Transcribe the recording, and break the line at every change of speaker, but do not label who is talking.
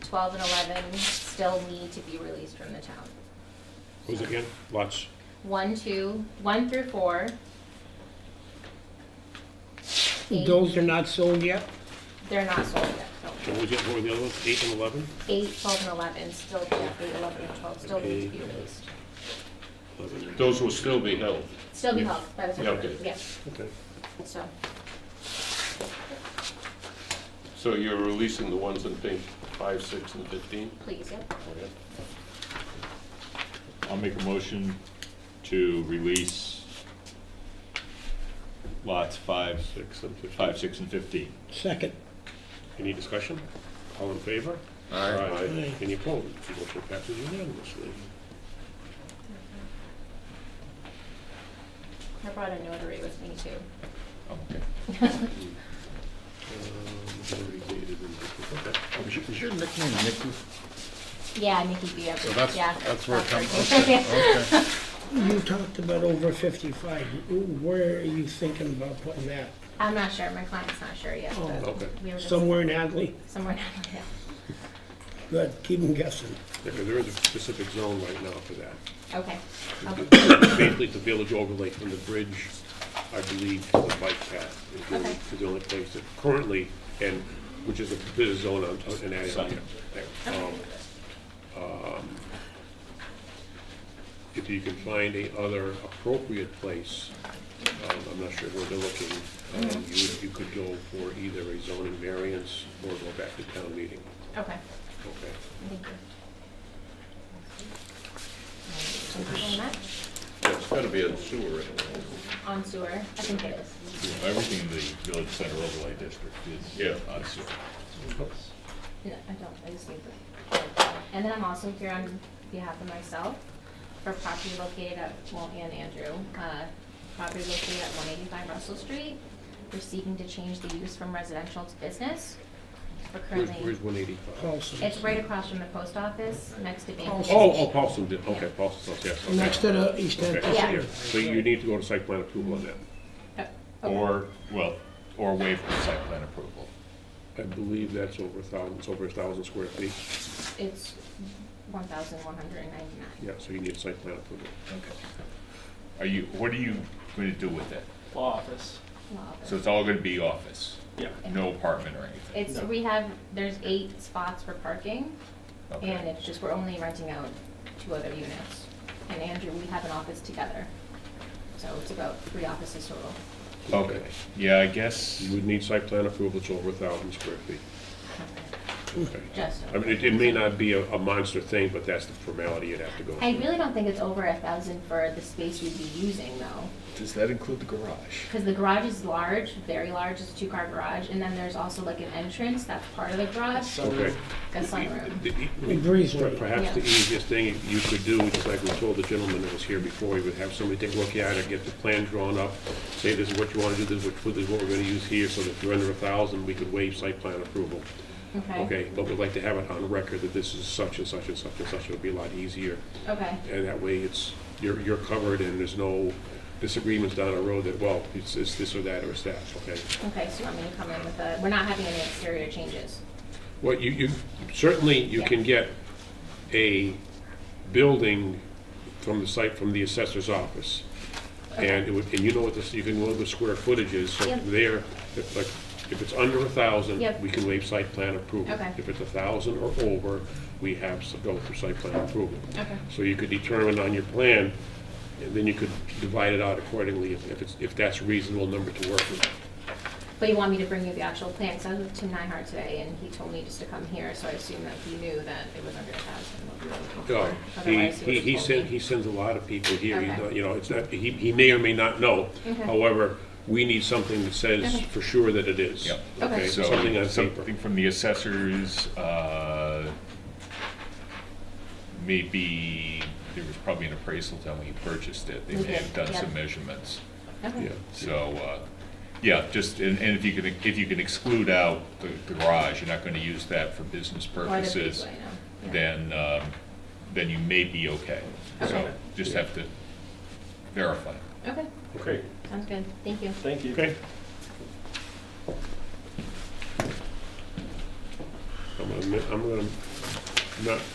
twelve and eleven still need to be released from the town.
What was it again? Lots.
One, two, one through four. Eight,
Those are not sold yet?
they're not sold yet, no.
So what was the, what were the other ones? Eight and eleven?
Eight, twelve, and eleven still, yeah, eight, eleven, and twelve still need to be released.
Eleven.
Those will still be held.
Still be held by the
Yeah,
town,
okay.
yeah,
Okay.
so,
So you're releasing the ones in pink, five, six, and fifteen?
please, yep.
I'll make a motion to release lots five,
Six and fifteen.
five, six, and fifteen.
Second.
Any discussion? All in favor?
Aye.
Aye.
Any opposed? Motion passes unanimously.
I brought a notary with me too.
Oh, okay.
Is your nickname Nicky?
Yeah, Nikki B. I-
So that's,
yeah.
that's where it comes,
that's
okay,
right.
okay.
You talked about over 55. Where are you thinking about putting that?
I'm not sure, my client's not sure yet,
Oh,
but
Okay,
we were just
Somewhere in Hadley?
somewhere down there.
Good, keep them guessing.
because there is a specific zone right now for that.
Okay, okay,
Basically, it's a village overlay from the bridge, I believe, to the bike path. is the only-
Okay.
Is the only place that currently, and, which is a business zone on, on- in that area.
Sign.
Um, um, If you can find a other appropriate place, um, I'm not sure where they're looking, um, you, you could go for either a zoning variance or go back to town meeting.
okay,
Okay.
thank you. Thank you very much.
That's gotta be a sewer anyway.
On sewer, I think it is.
Everything in the village center overlay district
Yeah.
is on sewer.
No, I don't, I just need the. And then I'm also here on behalf of myself for property located at, well, and Andrew, uh, property located at one eighty-five Russell Street. We're seeking to change the use from residential to business. We're
Where's,
currently.
where's one eighty-five?
Paulson.
It's right across from the post office, next to Bank.
Paulson.
Oh, oh, Paulson did, okay, Paulson's, house, yes. okay.
Next to the East End.
Okay,
Yeah.
yeah. So you need to go to site plan approval on that.
Oh, okay.
Or, well, or waive the site plan approval.
I believe that's over a thousand, it's over a thousand square feet.
It's one thousand one hundred and ninety-nine.
Yeah, so you need site plan approval.
Okay. Are you, what are you going to do with it?
law office.
So it's all going to be office,
Yeah.
no apartment or anything?
It's, we have, there's eight spots for parking,
Okay.
and it's just, we're only renting out two other units. And Andrew, we have an office together, so it's about three offices total.
Okay, yeah, I guess,
You would need site plan approval, it's over a thousand square feet. Okay.
Just
I mean, it, it may not be a, a monster thing, but that's the formality you'd have to go through.
I really don't think it's over a thousand for the space we'd be using, though.
Does that include the garage?
Because the garage is large, very large, it's a two-car garage, and then there's also like an entrance, that's part of the garage,
Okay.
a sunroom.
The- the-
Breezeway.
Perhaps the
Yeah.
easiest thing you could do, just like we told the gentleman that was here before, you would have somebody take a look at it, get the plan drawn up, say this is what you want to do, this is what- this is what we're going to use here, so that if you're under a thousand, we could waive site plan approval. Okay, but we'd like to have it on record that this is such and such and such and such, it would be a lot easier.
Okay,
And that way, it's, you're, you're covered and there's no disagreements down the road that, well, it's, it's this or that or it's that, okay?
okay, so I'm gonna come in with a, we're not having any exterior changes.
Well, you, you, certainly you can get a building from the site, from the assessor's office. And it would, and you know what this, you can know what the square footage is, so
Yep.
there, if like, if it's under a thousand,
Yep.
we can waive site plan approval.
Okay.
If it's a thousand or over, we have to go for site plan approval.
Okay.
So you could determine on your plan, and then you could divide it out accordingly if, if it's, if that's a reasonable number to work with.
But you want me to bring you the actual plan, because I was with Tim Nyhard today, and he told me just to come here, so I assume that he knew that it was under a thousand, what we were looking for.
No, Oh, he,
Otherwise,
he,
would've
he
told
sends,
me.
he sends a lot of people here, He's
Okay.
not- you know, it's not, he, he may or may not know.
Okay.
However, we need something that says
Okay.
for sure that it is.
Yep.
Okay.
Okay,
so,
something on paper.
something from the assessors, uh, maybe, there was probably an appraisal done when he purchased it. They
We
may
did,
have done
yeah.
some measurements.
Okay.
Yeah.
So, uh, yeah, just, and and if you can, if you can exclude out the the garage, you're not going to use that for business
Or the
purposes,
breezeway, no. Yeah.
then, um, then you may be okay.
Okay.
So just have to verify.
Okay,
Okay.
sounds good, thank you.
Thank you.
Okay. I'm gonna I'm gonna, I'm gonna not